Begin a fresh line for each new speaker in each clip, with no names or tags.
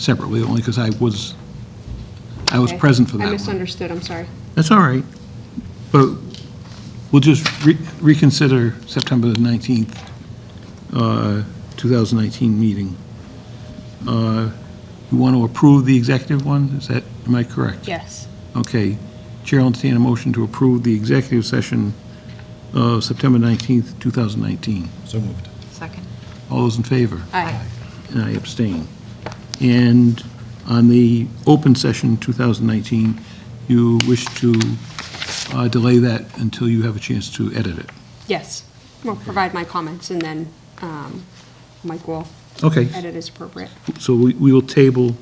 separately, only because I was, I was
Okay.
present for that
I
one.
misunderstood, I'm sorry.
That's all right. But we'll just re- reconsider September 19th, uh, 2019 meeting. Uh, You want to approve the executive one? Is that, am I correct?
Yes.
Okay. Chair will entertain a motion to approve the executive session of September 19th, 2019.
So moved.
Second.
All those in favor?
Aye.
And I abstain. And on the open session 2019, you wish to uh, delay that until you have a chance to edit it.
Yes. We'll provide my comments, and then um, Mike will
Okay,
edit as appropriate.
so we we will table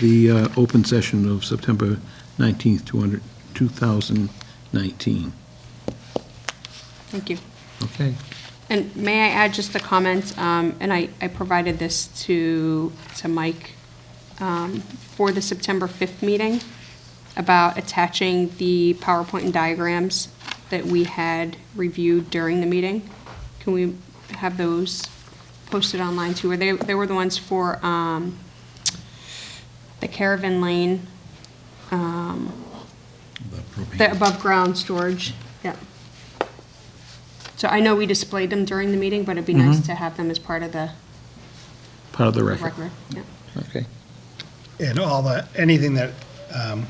the uh, open session of September 19th, 200 2019.
Thank you.
Okay.
And may I add just a comment, um, and I, I provided this to, to Mike, um, for the September 5th meeting about attaching the PowerPoint and diagrams that we had reviewed during the meeting. Can we have those posted online too? Were they, they were the ones for, um, the Caravan Lane,
The propane.
the above-ground storage, yeah. So I know we displayed them during the meeting, but it'd be nice to have them as part of the
Part of the record.
record, yeah.
Okay.
And all the, anything that um,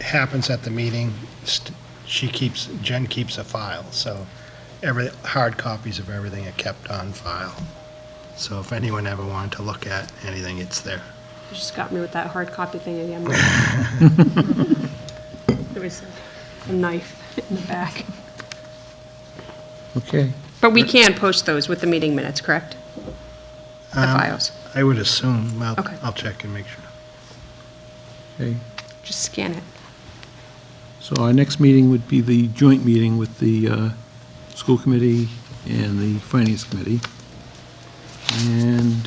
happens at the meeting, st- she keeps, Jen keeps a file, so every, hard copies of everything are kept on file. So if anyone ever wanted to look at anything, it's there.
You just got me with that hard copy thing again. There was a knife in the back.
Okay.
But we can post those with the meeting minutes, correct? The
Um,
files.
I would assume, well,
Okay.
I'll check and make sure.
Okay.
Just scan it.
So our next meeting would be the joint meeting with the uh, school committee and the finance committee. And,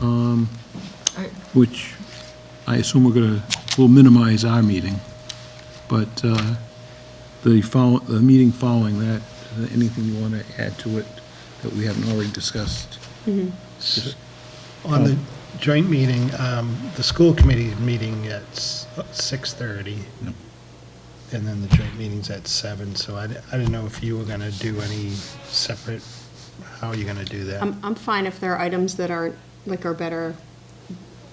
um,
All right.
which I assume we're going to, will minimize our meeting, but uh, the follow, the meeting following that, uh, anything you want to add to it that we haven't already discussed? Just-
On the joint meeting, um, the school committee meeting at s- 6:30, and then the joint meeting's at 7, so I di- I didn't know if you were going to do any separate, how are you going to do that?
I'm, I'm fine if there are items that aren't, like, are better,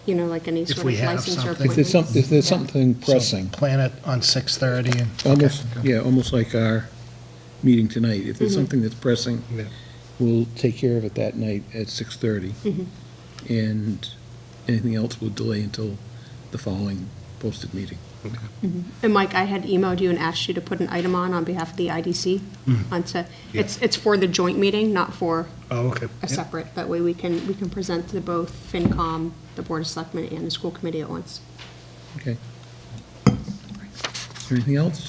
you know, like any
If
sort
we
of
have
license or
something-
appointment.
If there's some- if there's
Yeah.
something
So
pressing.
Plan it on 6:30, and
Almost, yeah, almost like our meeting tonight. If
Mm-hmm.
there's something that's pressing,
Yeah.
we'll take care of it that night at
Mm-hmm.
6:30. And anything else we'll delay until the following posted meeting.
And Mike, I had emailed you and asked you to put an item on, on behalf of the IDC,
Hmm.
onto, it's, it's for the joint meeting, not for
oh, okay.
a separate, that way we can, we can present to both FinCom, the Board of Selectmen, and the school committee at once.
Okay. Is there anything else?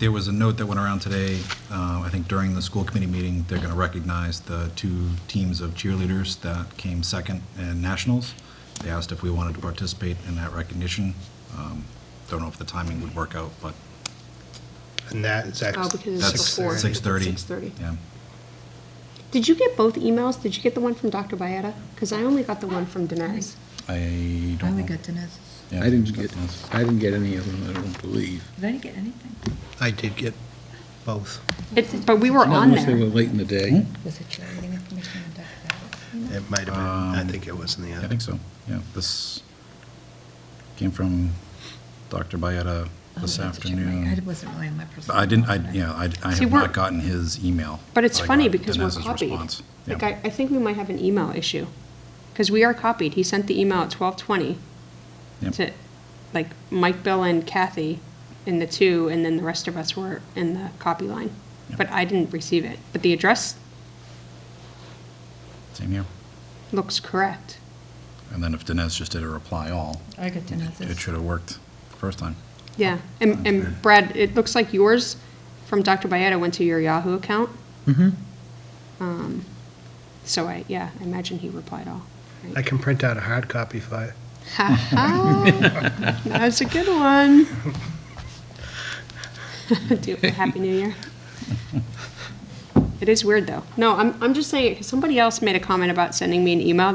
There was a note that went around today, uh, I think during the school committee meeting, they're going to recognize the two teams of cheerleaders that came second in nationals. They asked if we wanted to participate in that recognition. Um, Don't know if the timing would work out, but
And that is
Oh,
actually
because
that's
it's before.
6:30.
6:30.
Yeah.
Did you get both emails? Did you get the one from Dr. Byetta? Because I only got the one from Dinesh.
I
I
don't
only
know.
got Dinesh.
Yeah.
I didn't get, I didn't get any of them, I don't believe.
Did I get anything?
I did get both.
It- But we were
Not
on
unless they
there.
were late in the day.
Was it cheerleading information on Dr. Ballard?
It might have been, I think it was in the
I
other.
think so, yeah. This came from Dr. Byetta this
Oh, I had to check my-
afternoon.
I wasn't really on my personal.
I didn't, I,
phone.
yeah, I, I
See,
have
we're-
not gotten his email.
But it's
I
funny
got
because we're
Dinesh's
copied.
response. Yeah.
Like, I, I think we might have an email issue. Because we are copied. He sent the email at 12:20
Yep.
to, like, Mike, Bill, and Kathy in the two, and then the rest of us were in the copy line.
Yep.
But I didn't receive it. But the address
Same here.
looks correct.
And then if Dinesh just did a reply all,
I got
it
Dinesh's.
should have worked the first time.
Yeah, and, and Brad, it looks like yours from Dr. Byetta went to your Yahoo account. Mm-hmm. So I, yeah, I imagine he replied all.
I can print out a hard copy for you.
That was a good one. Do it for Happy New Year. It is weird, though. No, I'm, I'm just saying, somebody else made a comment about sending me an email